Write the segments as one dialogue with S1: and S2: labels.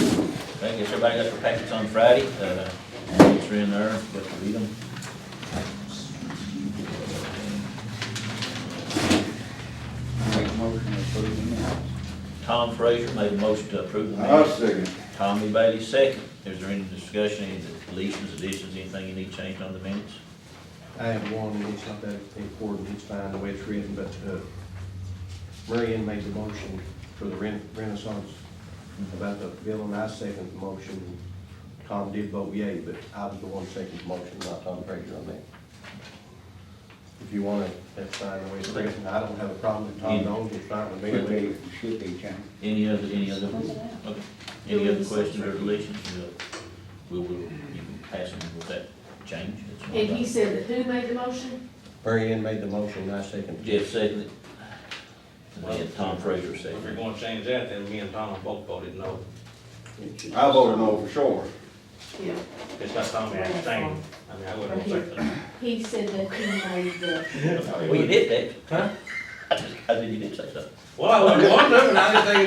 S1: I guess everybody got their packets on Friday, uh, it's in there, but to read them.
S2: Make a motion to approve the minutes.
S1: Tom Frazier made a motion to approve the
S3: I'll
S1: minutes.
S3: second.
S1: Tommy Bailey second. Is there any discussion, any deletions, additions, anything you need changed on the minutes?
S4: I have one, and it's not that important, it's fine the way it's written, but, uh, Marion made the motion for the Ren- Renaissance about the bill, and I seconded the motion. Tom did vote yea, but I was the one seconding the motion, not Tom Frazier on that. If you wanna, that's fine the way it's written, I don't have a problem with Tom Jones, it's fine with
S2: Should
S4: me.
S2: be, should be changed.
S1: Any other, any other, okay, any other questions or deletions? We'll, we'll, you can pass them with that change. That's one
S5: And he
S1: thing.
S5: said that who made the motion?
S4: Marion made the motion, and I seconded it.
S1: Jeff seconded. And then Tom Frazier
S6: If you're
S1: seconded.
S6: gonna change that, then me and Tom both voted no.
S3: I voted no for sure.
S5: Yeah.
S6: It's not Tommy abstaining. I mean, I wouldn't expect that.
S5: He said that he made the,
S1: Well, you did that. Huh? I just, I think you did say something.
S6: Well, I wouldn't want to, and I just think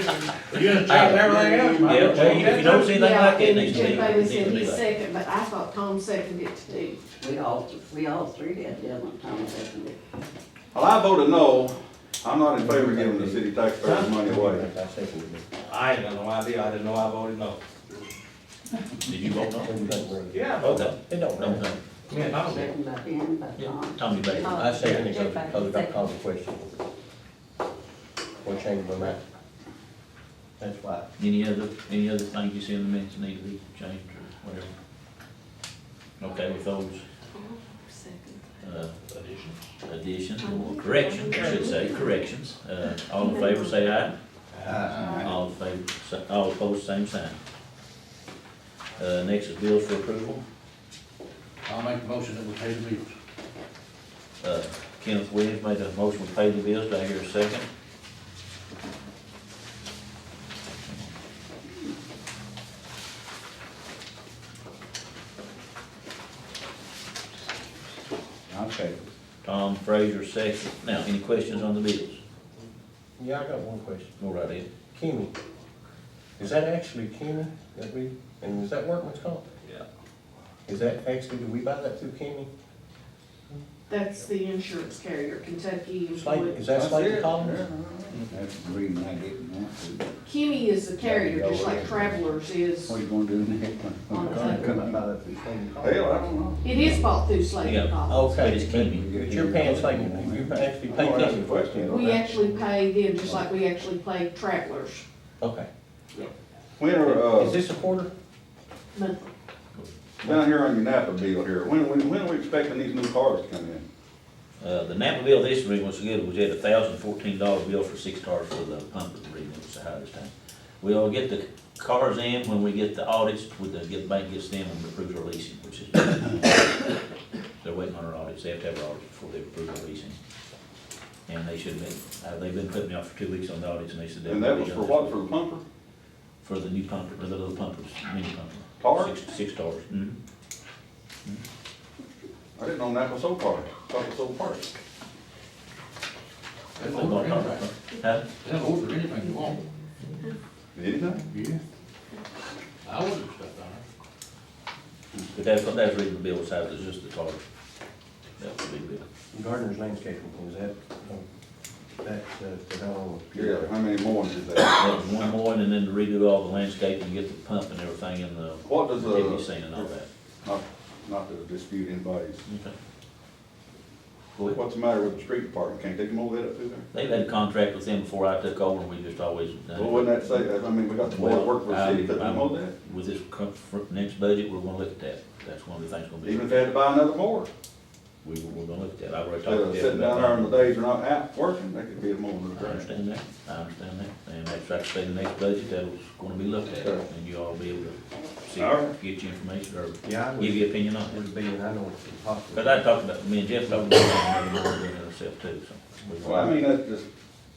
S6: it's, you're gonna change everything else. might as well
S1: Yeah, well,
S6: change
S1: if you
S6: that.
S1: don't see anything
S5: yeah,
S1: like that,
S5: and
S1: next
S5: Jeff
S1: meeting.
S5: Bailey
S1: you
S5: said
S1: can
S5: he
S1: do that.
S5: seconded, but I thought Tom seconded it to do.
S7: We all, we all three did, didn't we, Tom, second it?
S3: Well, I voted no. I'm not in favor of giving the city taxpayers money away.
S4: I seconded it.
S6: I ain't got no idea. I didn't know I voted no.
S1: Did you vote
S4: What do you think, Marion?
S6: Yeah, I
S1: no? It don't. No, no.
S6: Me and Tom did.
S7: Second by Ben, by
S1: Yeah,
S7: Tom.
S1: Tommy Bailey.
S4: I seconded it, because I called the question. What changed my mind? That's why.
S1: Any other, any other thing you see in the minutes need to be changed or whatever? Okay, with those, uh, additions or corrections, I should say, corrections, uh, all in favor, say aye. All in favor, sa- all opposed, same sign. Uh, next is bills for approval,
S8: I'll make the motion that we pay the bills.
S1: uh, Kenneth Williams made a motion to pay the bills, do I hear a second?
S2: I'll second.
S1: Tom Frazier, second. Now, any questions on the bills?
S4: Yeah, I got one question.
S1: Go right ahead.
S4: Kenny. Is that actually Kenny that we, and is that workman's comp?
S6: Yeah.
S4: Is that actually, do we buy that through Kenny?
S5: That's the insurance carrier, Kentucky
S4: Slate,
S5: Employee.
S4: is that Slate
S2: it.
S4: Collins?
S2: That's the reason I didn't want to.
S5: Kenny is the carrier, just like Travelers is.
S2: What you gonna do next?
S5: On the
S4: I could not
S2: one?
S4: buy that through Slate Collins.
S3: Hell, I don't know.
S5: It is bought through Slate
S1: Yeah.
S5: and Collins.
S1: But
S4: Okay,
S1: it's
S4: but
S1: Kenny.
S4: but you're paying Slate, you actually
S3: I'm
S4: pay
S3: gonna ask you a
S4: Kenny.
S3: question.
S1: Oh,
S3: though.
S5: We actually pay them, just like we actually pay Travelers
S4: Okay.
S3: When are,
S4: Is
S3: uh,
S4: this a quarter?
S5: monthly.
S3: down here on your Napa bill here, when, when, when are we expecting these new cars to come in?
S1: Uh, the NAPA bill this week was good, we had a thousand fourteen dollar bill for six cars for the pump that we was the highest time. We'll get the cars in when we get the audits, with the, get, bank gets them and approves our leasing, which is. They're waiting on our audits, they have to have our audits before they approve our leasing. And they should have been, uh, they've been putting me off for two weeks on the audits, and they said. they'll
S3: And that
S1: be
S3: was
S1: done
S3: for
S1: this
S3: what,
S1: week.
S3: for the pumper?
S1: For the new pumper, for the little pumpers, mini pumper.
S3: Tar?
S1: Six, six tars, mhm.
S3: I didn't know Napa sold cars, Napa sold parts.
S8: They
S1: They bought
S8: order
S1: tar.
S8: anything,
S1: Huh?
S8: they'll order anything you want.
S3: Anything?
S8: Yeah. I ordered stuff down
S1: But that's, what that's reading the bill side, it's just the tar. That would be good.
S4: Gardner's Landscaping, is that, uh, that, uh, the fellow?
S3: Yeah, how many more is that?
S1: That was one more, and then to redo all the landscape and get the pump and everything in the
S3: What does,
S1: activity
S3: uh,
S1: scene and all that.
S3: not, not to dispute anybody's,
S1: Okay. Go ahead.
S3: what's the matter with the street department? Can't they mow that up through there?
S1: They've had a contract with them before I took over, and we just always done it.
S3: Well, wouldn't that say, that? I mean, we got the board work for the city, couldn't they mow
S1: Well,
S3: that?
S1: With this co- for next budget, we're gonna look at that. That's one of the things we'll be,
S3: Even if they had to buy another mower,
S1: we, we're gonna look at that. I already
S3: instead
S1: talked to
S3: of
S1: Jeff
S3: sitting down there on
S1: about
S3: the
S1: that.
S3: days they're not out working, they could be a mowing
S1: I
S3: the grass.
S1: understand that, I understand that, and that's like I say, the next budget, that's gonna be looked at,
S3: Okay.
S1: and you all be able to see,
S3: All right.
S1: get your information, or give
S4: Yeah, I would,
S1: your opinion on it.
S4: would be, and I know it's impossible.
S1: But I talked about, me and Jeff talked about it, and we were doing it ourselves too, so. we-
S3: Well, I mean, that's just,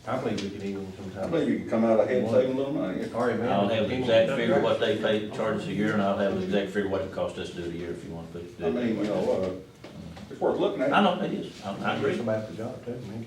S4: I believe we could even
S3: I
S4: sometimes.
S3: believe you can come out ahead and save a little money.
S4: Sorry, man.
S1: I'll have the exact figure what they pay, charge us a year, and I'll have the exact figure what it cost us to do it a year if you want to put
S3: I
S1: do it.
S3: mean, you know, uh, it's worth looking at.
S1: I know, it is, I I agree.
S4: Somebody at the job, too, man.